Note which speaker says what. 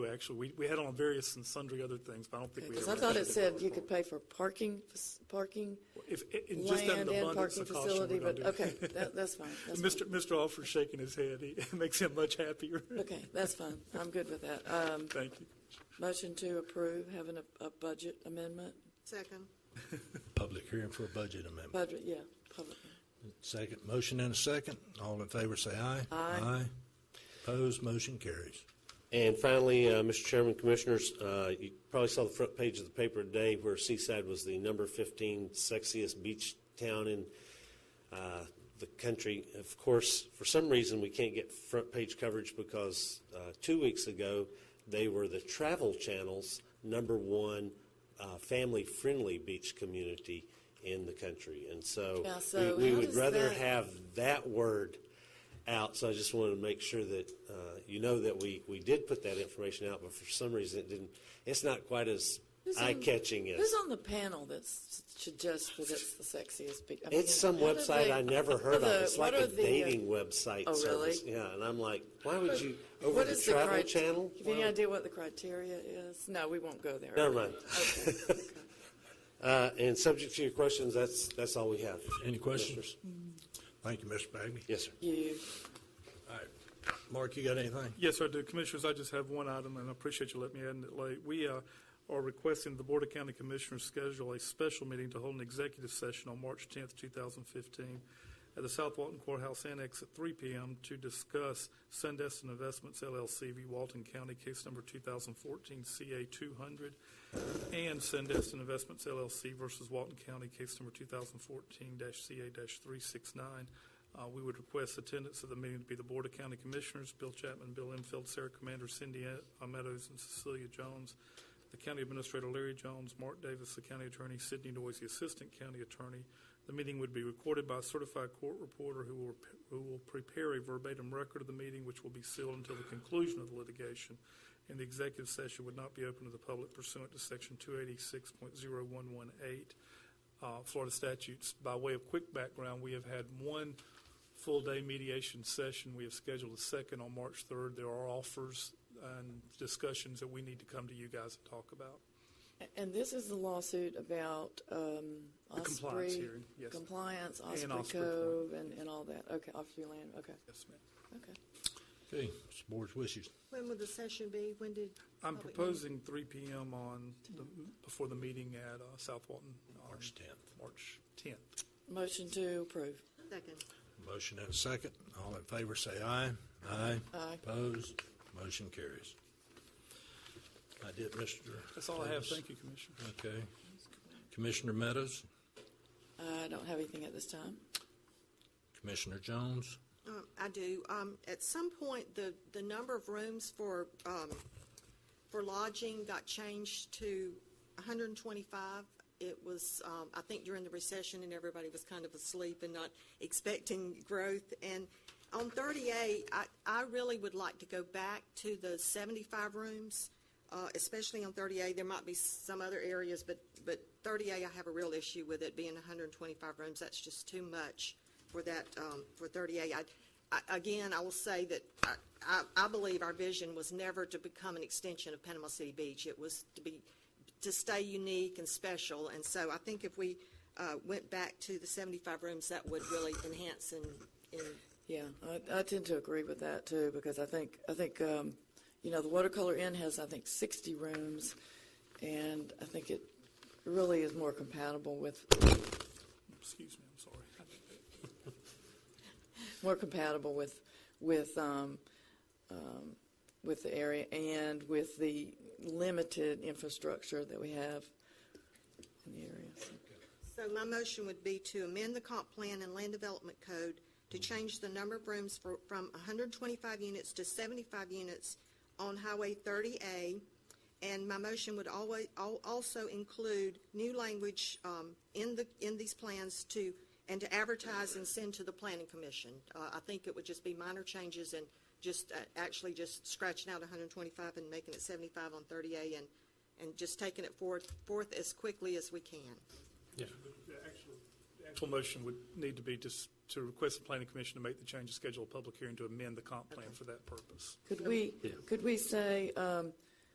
Speaker 1: actually. We, we had on various and sundry other things, but I don't think we ever.
Speaker 2: Because I thought it
Speaker 1: actually
Speaker 2: said
Speaker 1: voted
Speaker 2: you
Speaker 1: for
Speaker 2: could pay for parking, f- parking,
Speaker 1: If, i- in just an
Speaker 2: land and
Speaker 1: abundance
Speaker 2: parking
Speaker 1: of caution, we're
Speaker 2: facility,
Speaker 1: gonna
Speaker 2: but,
Speaker 1: do it.
Speaker 2: okay, that, that's fine. that's
Speaker 1: Mr.
Speaker 2: fine.
Speaker 1: Mr. Alford shaking his head, He- it makes him much happier.
Speaker 2: Okay, that's fine. I'm good with that. Um,
Speaker 1: Thank you.
Speaker 2: motion to approve, having a, a budget amendment,
Speaker 3: Second.
Speaker 4: Public hearing for a budget amendment.
Speaker 2: budget, yeah, public.
Speaker 4: Second, motion and a second. All in favor, say aye. Aye. Opposed, motion carries.
Speaker 5: And finally, uh, Mr. Chairman, Commissioners, uh, you probably saw the front page of the paper today where Seaside was the number 15 sexiest beach town in uh, the country. Of course, for some reason, we can't get front page coverage because uh, two weeks ago, they were the Travel Channel's number one uh, family-friendly beach community in the country. And so
Speaker 2: Yeah, so
Speaker 5: we we
Speaker 2: how
Speaker 5: would
Speaker 2: does
Speaker 5: rather
Speaker 2: that-
Speaker 5: have that word out, so I just wanted to make sure that uh, you know that we, we did put that information out, but for some reason it didn't, it's not quite as
Speaker 2: Who's on-
Speaker 5: eye-catching as,
Speaker 2: Who's on the panel that s- suggests that it's the sexiest? be- I mean,
Speaker 5: it's some
Speaker 2: how do
Speaker 5: website
Speaker 2: they-
Speaker 5: I never
Speaker 2: what are
Speaker 5: heard of.
Speaker 2: the-
Speaker 5: It's
Speaker 2: what
Speaker 5: like a
Speaker 2: are the, uh,
Speaker 5: dating website
Speaker 2: Oh,
Speaker 5: service.
Speaker 2: really?
Speaker 5: Yeah, and I'm like, why would you, over
Speaker 2: What
Speaker 5: the
Speaker 2: is the
Speaker 5: Travel
Speaker 2: crit-
Speaker 5: Channel?
Speaker 2: Have you any
Speaker 5: Wow.
Speaker 2: idea what the criteria is? No, we won't go there.
Speaker 5: Never mind. Uh, And subject to your questions, that's, that's all we have.
Speaker 4: Any questions?
Speaker 5: Commissioners.
Speaker 4: Thank you, Mr. Bagby.
Speaker 5: Yes, sir.
Speaker 2: You,
Speaker 4: All right. Mark, you got anything?
Speaker 1: Yes, sir, I do. Commissioners, I just have one item, and I appreciate you letting me add it late. We uh, are requesting the Board of County Commissioners schedule a special meeting to hold an executive session on March 10th, 2015, at the South Walton Courthouse Annex at 3 p.m. to discuss Sandestin Investments LLC v. Walton County, case number 2014 CA 200, and Sandestin Investments LLC versus Walton County, case number 2014-CA-369. Uh, We would request attendance of the meeting to be the Board of County Commissioners, Bill Chapman, Bill Enfield, Sarah Commander, Cindy A- uh, Meadows, and Cecilia Jones, the County Administrator Larry Jones, Mark Davis, the County Attorney, Sidney Noyes, the Assistant County Attorney. The meeting would be recorded by a certified court reporter who will, who will prepare a verbatim record of the meeting, which will be sealed until the conclusion of the litigation and the executive session would not be open to the public pursuant to Section 286.0118 uh, Florida statutes. By way of quick background, we have had one full-day mediation session. We have scheduled a second on March 3rd. There are offers and discussions that we need to come to you guys and talk about.
Speaker 2: and this is the lawsuit about, um,
Speaker 1: The
Speaker 2: Osprey.
Speaker 1: compliance hearing, yes.
Speaker 2: Compliance,
Speaker 1: Osprey
Speaker 2: Osprey
Speaker 1: Point.
Speaker 2: Cove, and, and all that. Okay, Osprey Land, okay,
Speaker 1: Yes, ma'am.
Speaker 2: okay.
Speaker 4: Okay, it's the board's wishes.
Speaker 3: When will the session be? When did?
Speaker 1: I'm
Speaker 3: public-
Speaker 1: proposing 3 p.m. on, the- before the meeting at uh, South Walton. on
Speaker 4: March 10th.
Speaker 1: March 10th.
Speaker 2: Motion to approve.
Speaker 3: Second.
Speaker 4: Motion and a second. All in favor, say aye. Aye.
Speaker 2: Aye.
Speaker 4: Opposed, motion carries. I did, Mr.
Speaker 1: That's all I have.
Speaker 4: Davis.
Speaker 1: Thank you, Commissioner.
Speaker 4: Okay. Commissioner Meadows,
Speaker 2: I don't have anything at this time.
Speaker 4: Commissioner Jones.
Speaker 3: Um, I do. Um, At some point, the, the number of rooms for, um, for lodging got changed to 125. It was, um, I think during the recession and everybody was kind of asleep and not expecting growth. And on 38, I, I really would like to go back to the 75 rooms, uh, especially on 38. There might be some other areas, but, but 38, I have a real issue with it being 125 rooms. That's just too much for that, um, for 38. I- I, again, I will say that I, I, I believe our vision was never to become an extension of Panama City Beach. It was to be, to stay unique and special. And so I think if we, uh, went back to the 75 rooms, that would really enhance and, and
Speaker 2: Yeah, I, I tend to agree with that too, because I think, I think, um, you know, the Watercolor Inn has, I think, sixty rooms, and I think it really is more compatible with,
Speaker 1: Excuse me, I'm sorry.
Speaker 2: more compatible with, with, um, um, with the area and with the limited infrastructure that we have in the area. So,
Speaker 3: So my motion would be to amend the comp plan and land development code to change the number of rooms for, from hundred and twenty-five units to seventy-five units on Highway thirty A. And my motion would always, al- also include new language, um, in the, in these plans to, and to advertise and send to the planning commission. Uh, I think it would just be minor changes and just, uh, actually just scratching out hundred and twenty-five and making it seventy-five on thirty A and, and just taking it forth, forth as quickly as we can.
Speaker 1: The actual- the Actual motion would need to be just to request the planning commission to make the change to schedule a public hearing to amend the comp plan for that purpose.
Speaker 2: Could we, could we say, um,